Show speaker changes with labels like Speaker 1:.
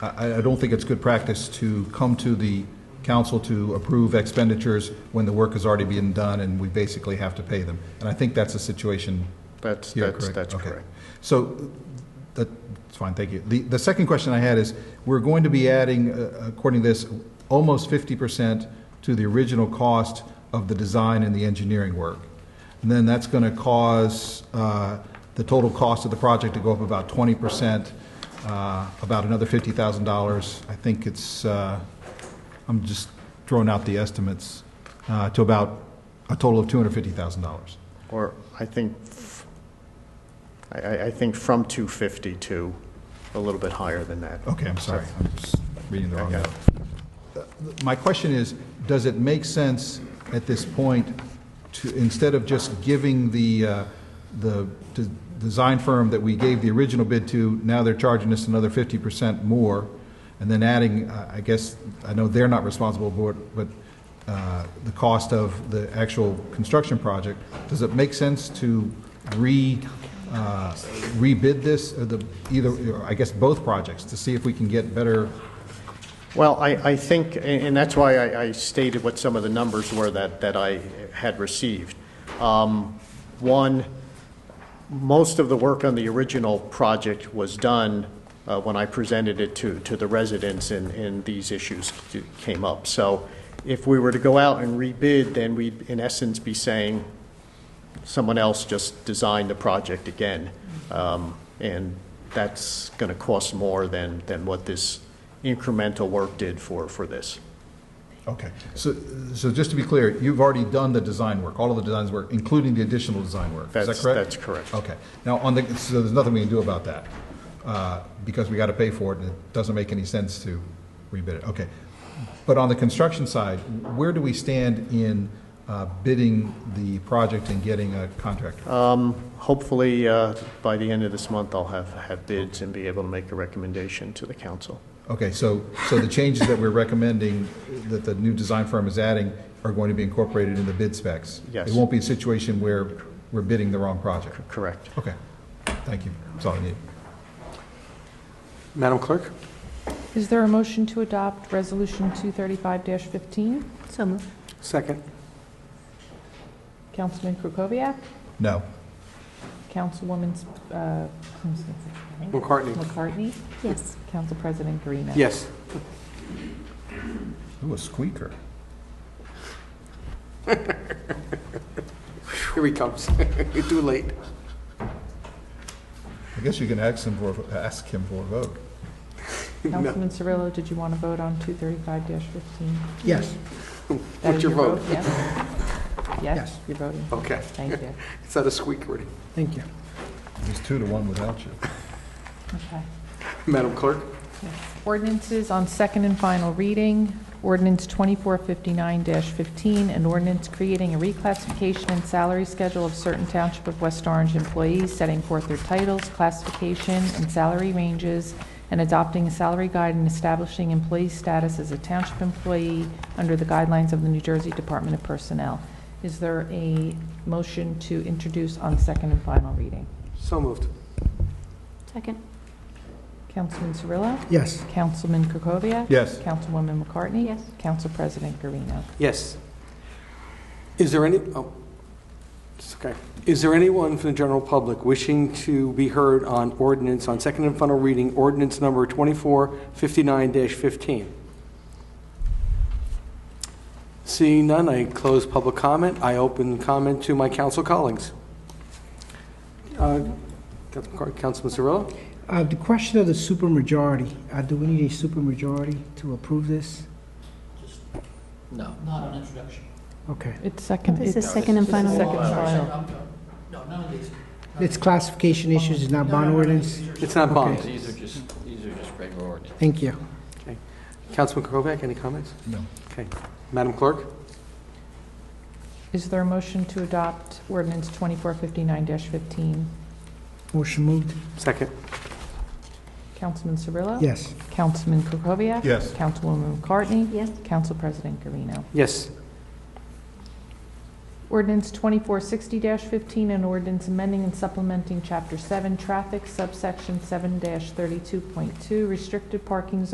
Speaker 1: I, I don't think it's good practice to come to the council to approve expenditures when the work has already been done and we basically have to pay them. And I think that's the situation
Speaker 2: That's,
Speaker 1: here,
Speaker 2: that's, that's
Speaker 1: Okay.
Speaker 2: correct.
Speaker 1: So, that's fine, thank you. The, the second question I had is, we're going to be adding, uh, according to this, almost fifty percent to the original cost of the design and the engineering work. And then that's going to cause uh, the total cost of the project to go up about twenty percent, uh, about another fifty thousand dollars. I think it's, uh, I'm just throwing out the estimates, uh, to about a total of two hundred fifty thousand dollars.
Speaker 2: Or I think, f- I, I- I think from 250 to a little bit higher than that.
Speaker 1: Okay, I'm sorry, I'm just reading the wrong
Speaker 2: Okay.
Speaker 1: note. My question is, does it make sense at this point to, instead of just giving the, uh, the d- design firm that we gave the original bid to, now they're charging us another 50% more, and then adding, uh, I guess, I know they're not responsible for it, but uh, the cost of the actual construction project, does it make sense to re, uh, rebid this, or the, either, or I guess, both projects, to see if we can get better?
Speaker 2: Well, I, I think, and and that's why I, I stated what some of the numbers were that, that I had received. Um, One, most of the work on the original project was done uh, when I presented it to, to the residents and, and these issues came up. So if we were to go out and rebid, then we'd in essence be saying, someone else just designed the project again. Um, And that's going to cost more than, than what this incremental work did for, for this.
Speaker 1: Okay, so, so just to be clear, you've already done the design work, all of the designs work, including the additional design work, is that
Speaker 2: That's-
Speaker 1: correct? Oh.
Speaker 2: that's correct.
Speaker 1: Okay, now, on the, so there's nothing we can do about that, uh, because we got to pay for it, and it doesn't make any sense to rebid it, okay. But on the construction side, where do we stand in uh, bidding the project and getting a contractor?
Speaker 2: Hopefully, uh, by the end of this month, I'll have, have bids and be able to make a recommendation to the council.
Speaker 1: Okay, so, so the changes that we're recommending, that the new design firm is adding, are going to be incorporated in the bid specs?
Speaker 2: Yes.
Speaker 1: It won't be a situation where we're bidding the wrong project?
Speaker 2: Correct.
Speaker 1: Okay, thank you. That's all I need.
Speaker 3: Madam Clerk?
Speaker 4: Is there a motion to adopt Resolution 235-15?
Speaker 5: So moved.
Speaker 3: Second.
Speaker 4: Councilman Kukoviac?
Speaker 1: No.
Speaker 4: Councilwoman uh, who's this?
Speaker 3: McCartney?
Speaker 4: McCartney?
Speaker 5: Yes.
Speaker 4: Council President Green?
Speaker 3: Yes.
Speaker 1: Ooh, a squeaker.
Speaker 3: Here he comes. Too late.
Speaker 1: I guess you can ask him for, ask him for a vote.
Speaker 4: Councilman Cirillo, did you want to vote on 235-15?
Speaker 6: Yes,
Speaker 4: That
Speaker 3: What's
Speaker 4: is
Speaker 3: your vote?
Speaker 4: Yes? Yes,
Speaker 6: Yes.
Speaker 4: you're voting.
Speaker 3: Okay.
Speaker 4: Thank you.
Speaker 3: It's not a squeak, already.
Speaker 6: thank you.
Speaker 1: It's two to one without you.
Speaker 4: Okay.
Speaker 3: Madam Clerk?
Speaker 4: Ordinances on second and final reading. Ordinance 2459-15, an ordinance creating a reclassification and salary schedule of certain Township of West Orange employees, setting forth their titles, classification, and salary ranges, and adopting a salary guide and establishing employee status as a Township employee under the guidelines of the New Jersey Department of Personnel. Is there a motion to introduce on second and final reading?
Speaker 3: So moved.
Speaker 5: Second.
Speaker 4: Councilman Cirillo?
Speaker 6: Yes,
Speaker 4: Councilman Kukoviac?
Speaker 1: Yes.
Speaker 4: Councilwoman McCartney?
Speaker 5: Yes.
Speaker 4: Council President Garino.
Speaker 3: Yes. Is there any, oh, it's okay. Is there anyone from the general public wishing to be heard on ordinance, on second and final reading, ordinance number 2459-15? Seeing none, I close public comment. I open comment to my council colleagues. Uh, Councilman Car- Councilman Cirillo?
Speaker 6: uh, the question of the supermajority, uh, do we need a supermajority to approve this?
Speaker 7: No, not on introduction.
Speaker 6: Okay,
Speaker 4: It's second.
Speaker 5: This is
Speaker 4: it's-
Speaker 5: second and
Speaker 4: it's
Speaker 5: final.
Speaker 4: Second and final.
Speaker 7: Um, No, none of these.
Speaker 6: it's classification issues, it's not bond ordinance?
Speaker 3: It's not bond.
Speaker 7: These are just, these are just regular ordinance.
Speaker 6: Thank you.
Speaker 3: Councilman Krokoviac, any comments?
Speaker 1: No.
Speaker 3: Okay. Madam Clerk?
Speaker 4: Is there a motion to adopt ordinance 2459-15?
Speaker 6: Motion moved?
Speaker 3: Second.
Speaker 4: Councilman Cirillo?
Speaker 6: Yes.
Speaker 4: Councilman Kukoviac?
Speaker 1: Yes.
Speaker 4: Councilwoman McCartney?
Speaker 5: Yes.
Speaker 4: Council President Garino.
Speaker 3: Yes.
Speaker 4: Ordinance 2460-15, an ordinance amending and supplementing Chapter 7 Traffic, subsection 7-32.2, restricted parking